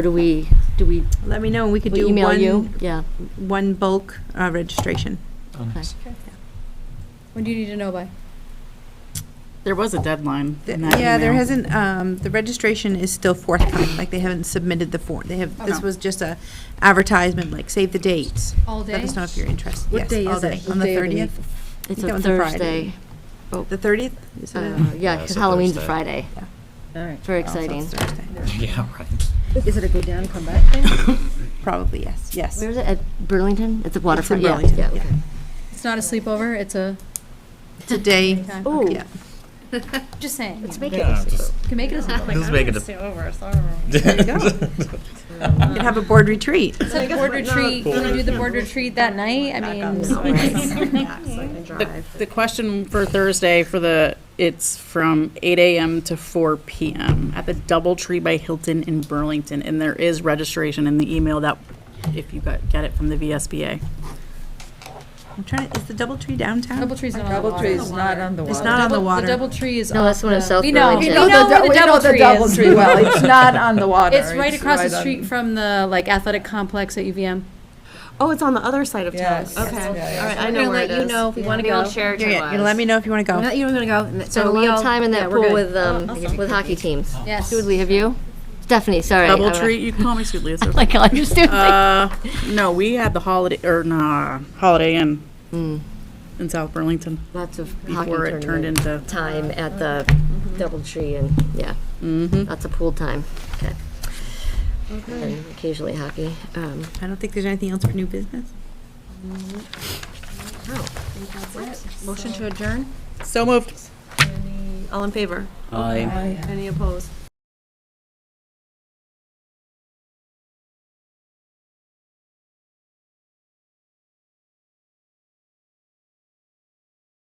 Or Do we, do we Let me know, and we could we do email you? one, Yeah. one bulk uh, registration. When do you need to know by? There was a deadline The- in that Yeah, there email. hasn't, um, the registration is still forthcoming, like they haven't submitted the form. They have, this Okay. was just a advertisement, like save the dates. All day? Let us know if you're interested. What Yes, day all is it? day. What On the day of the thirtieth, It's that a one's a Friday. Thursday. the thirtieth? Is it a- Uh, Yeah, Yeah, because it's a Halloween's a Thursday. Friday. All right. It's very Oh, so it's exciting. Thursday. Yeah, right. Is it a go down, come back thing? Probably, yes, yes. Where is it? At Burlington? It's at Waterfront. It's in Yeah, Burlington, yeah, okay. It's not a sleepover, it's a, It's a day, Time. Ooh, yeah. just saying. let's You make it. Yeah, just, can make it a sleepover. just make it a. You could have a board retreat. It's a board retreat, can we do the board retreat that night? I mean. The- The question for Thursday for the, it's from eight AM to four PM at the DoubleTree by Hilton in Burlington. And there is registration in the email that, if you got, get it from the VSBA. I'm trying to, is the Doubletree downtown? Double tree's not on the water. not on the It's not on the Double- water. The double tree is. No, off that's the one in the- South We know, we Burlington. know where the double tree is. well. It's not on the water. It's right across the street from the, like, athletic complex at UVM. Oh, it's on the other side of town. Yes. Okay, all Yes. right, I We're know gonna where it let you is. know if we wanna We all go. shared You're your gonna- you let me know if you want to go. You were gonna go. Spent a long time in that pool with, um, Oh, with hockey teams. Yes. Julie, have you? Stephanie, sorry. I- DoubleTree, you can call me Sweetly. it's okay. Like, I just do. Uh, no, we had the Holiday, or nah, Holiday Inn Hmm. in South Burlington Lots of hockey before it tournament turned into. Mm-hmm. time at the Doubletree and, yeah. Lots of pool time. Okay. And Occasionally hockey. Um, I don't think there's anything else for new business. Motion to adjourn? So moved. Oh, All in favor? Aye. Any opposed?